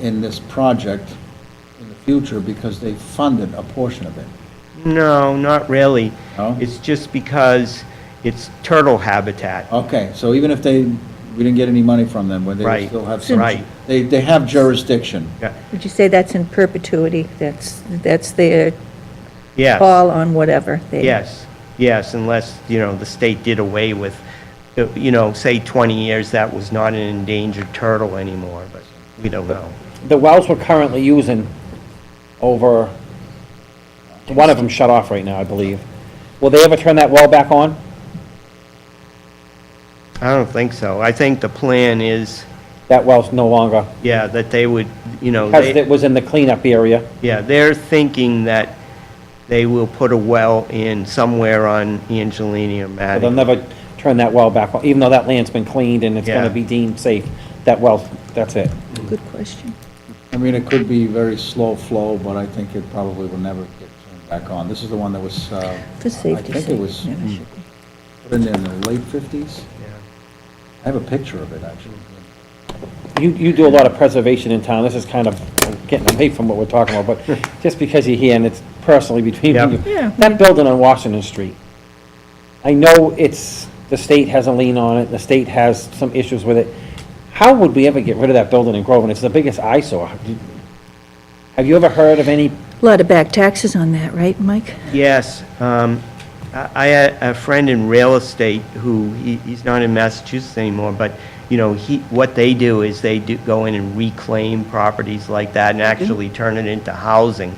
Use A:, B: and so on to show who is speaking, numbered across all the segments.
A: in this project in the future because they funded a portion of it.
B: No, not really.
A: No?
B: It's just because it's turtle habitat.
A: Okay, so even if they, we didn't get any money from them, but they would
B: Right,
A: still have some.
B: right.
A: They, they have jurisdiction.
C: Would you say that's in perpetuity? That's, that's their
B: Yes,
C: call on whatever they...
B: yes, yes, unless, you know, the state did away with, uh, you know, say 20 years, that was not an endangered turtle anymore, but we don't know.
D: The wells we're currently using over, one of them shut off right now, I believe. Will they ever turn that well back on?
B: I don't think so. I think the plan is,
D: That well's no longer,
B: yeah, that they would, you know,
D: because
B: they,
D: it was in the cleanup area.
B: yeah, they're thinking that they will put a well in somewhere on Angelina or
D: So They'll
B: Matting.
D: never turn that well back on, even though that land's been cleaned and it's
B: Yeah.
D: gonna be deemed safe. That well, that's it.
C: Good question.
A: I mean, it could be very slow flow, but I think it probably will never get turned back on. This is the one that was, uh,
C: For safety's
A: I
C: sake.
A: think it was
C: yeah,
A: mm,
C: should be.
A: put in in the late 50s. I have a picture of it, actually.
D: You, you do a lot of preservation in town, this is kind of getting away from what we're talking about, but just because you're here and it's personally between
B: Yep.
D: you.
C: Yeah.
D: That building on Washington Street, I know it's, the state has a lien on it, the state has some issues with it. How would we ever get rid of that building in Groveland? It's the biggest eyesore. Have you ever heard of any,
C: A Lot of back taxes on that, right, Mike?
B: Yes. um, I I had a friend in real estate who, he- he's not in Massachusetts anymore, but, you know, he, what they do is they do go in and reclaim properties like that and actually turn it into housing.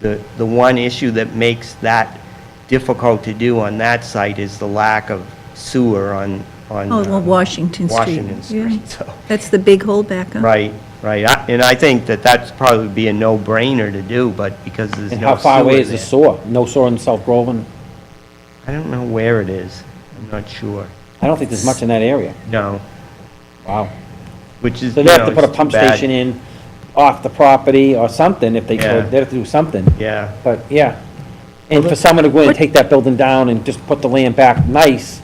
B: The, the one issue that makes that difficult to do on that site is the lack of sewer on, on.
C: Oh, well,
B: uh,
C: Washington Street.
B: Washington
C: Yeah.
B: Street, so.
C: That's the big holdback on.
B: Right, right. I- And I think that that's probably be a no-brainer to do, but because there's no
D: and
B: sewer
D: how far away is the
B: there.
D: sewer? No sewer in South Groveland?
B: I don't know where it is. I'm not sure.
D: I don't think there's much in that area.
B: No,
D: Wow.
B: which is,
D: So
B: you
D: they
B: know,
D: have to put a
B: it's
D: pump
B: bad.
D: station in off the property or something if they
B: Yeah.
D: could, they have to do something.
B: Yeah,
D: But, yeah. And for someone to go in and take that building down and just put the land back nice,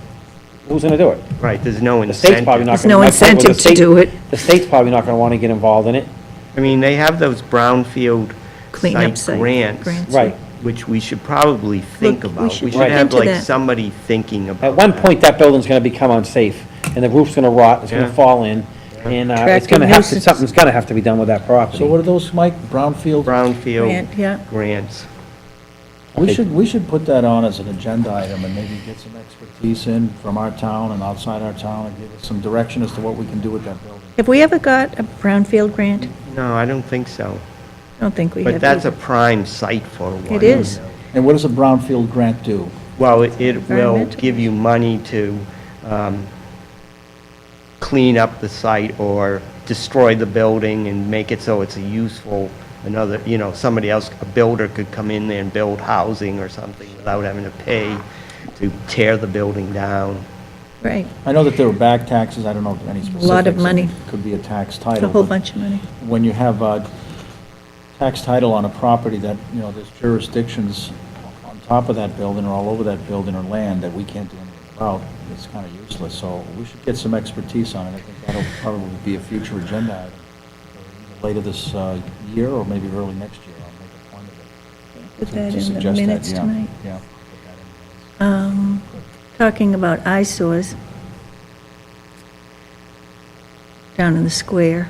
D: who's gonna do it?
B: right, there's no
D: The state's
B: incentive.
D: probably not
C: There's
D: gonna.
C: no
D: my point was the
C: incentive to
D: state-
C: do it.
D: The state's probably not gonna wanna get involved in it.
B: I mean, they have those brownfield
C: Cleanup
B: site
C: site
B: grants.
C: grants.
D: Right.
B: Which we should probably think
C: Look, we
B: about.
C: should
B: We
C: look
B: should have
C: into
B: like
C: that.
B: somebody thinking about
D: At one
B: that.
D: point, that building's gonna become unsafe, and the roof's gonna rot, it's
B: Yeah.
D: gonna fall in, and, uh, it's
C: Attractive
D: gonna have to,
C: nuisance.
D: something's gonna have to be done with that property.
A: So what are those, Mike? Brownfield?
C: Grant, yeah.
B: Brownfield grants.
A: We should, we should put that on as an agenda item and maybe get some expertise in from our town and outside our town and give us some direction as to what we can do with that building.
C: Have we ever got a brownfield grant?
B: No, I don't think so.
C: I don't think we have.
B: But that's a
C: either.
B: prime site for one.
C: It is.
A: And what does a brownfield grant do?
B: Well, it- it will
C: Environmental.
B: give you money to um, clean up the site or destroy the building and make it so it's a useful, another, you know, somebody else, a builder could come in there and build housing or something without having to pay to tear the building down.
C: Right,
A: I know that there were back taxes, I don't know any specifics.
C: lot of money.
A: It Could be a tax
C: it's a
A: title.
C: whole
A: but
C: bunch of money.
A: When you have a tax title on a property that, you know, there's jurisdictions on top of that building or all over that building or land that we can't do anything about, it's kind of useless, so we should get some expertise on it. I think that'll probably be a future agenda item, either later this uh, year or maybe early next year. I'll make a point of it.
C: Put
A: to-
C: that
A: to
C: in the
A: suggest that,
C: minutes
A: yeah,
C: tonight.
A: Yeah.
C: Um, Talking about eyesores, down in the square,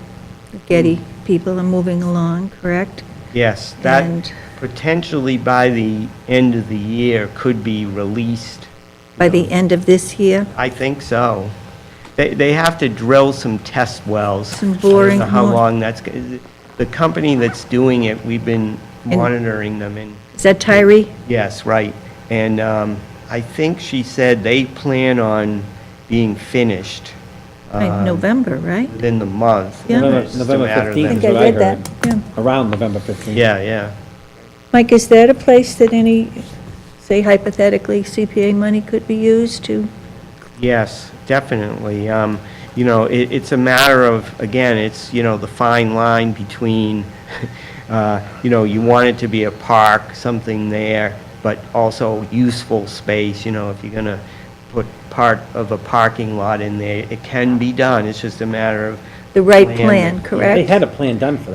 C: the Getty
B: Hmm.
C: people are moving along, correct?
B: Yes,
C: And-
B: that potentially by the end of the year could be released.
C: By the end of this year,
B: I think so. They, they have to drill some test wells.
C: Some boring
B: I don't know how
C: more-
B: long that's, g- the company that's doing it, we've been monitoring them and,
C: is that Tyree?
B: yes, right. And um, I think she said they plan on being finished Uh, um,
C: Right, November, right?
B: within the month.
C: Yeah.
D: November-
B: It's just a
D: November
B: matter of
D: 15th.
B: them-
D: That's what I
C: read that. Yeah.
D: Around November fifteenth.
B: Yeah, yeah.
C: Mike, is that a place that any, say hypothetically, CPA money could be used to?
B: Yes, definitely. Um, You know, it, it's a matter of, again, it's, you know, the fine line between, uh, you know, you want it to be a park, something there, but also useful space, you know, if you're going to put part of a parking lot in there, it can be done. It's just a matter of.
C: The right
B: Plan.
C: plan, correct?
D: They had a plan done for that.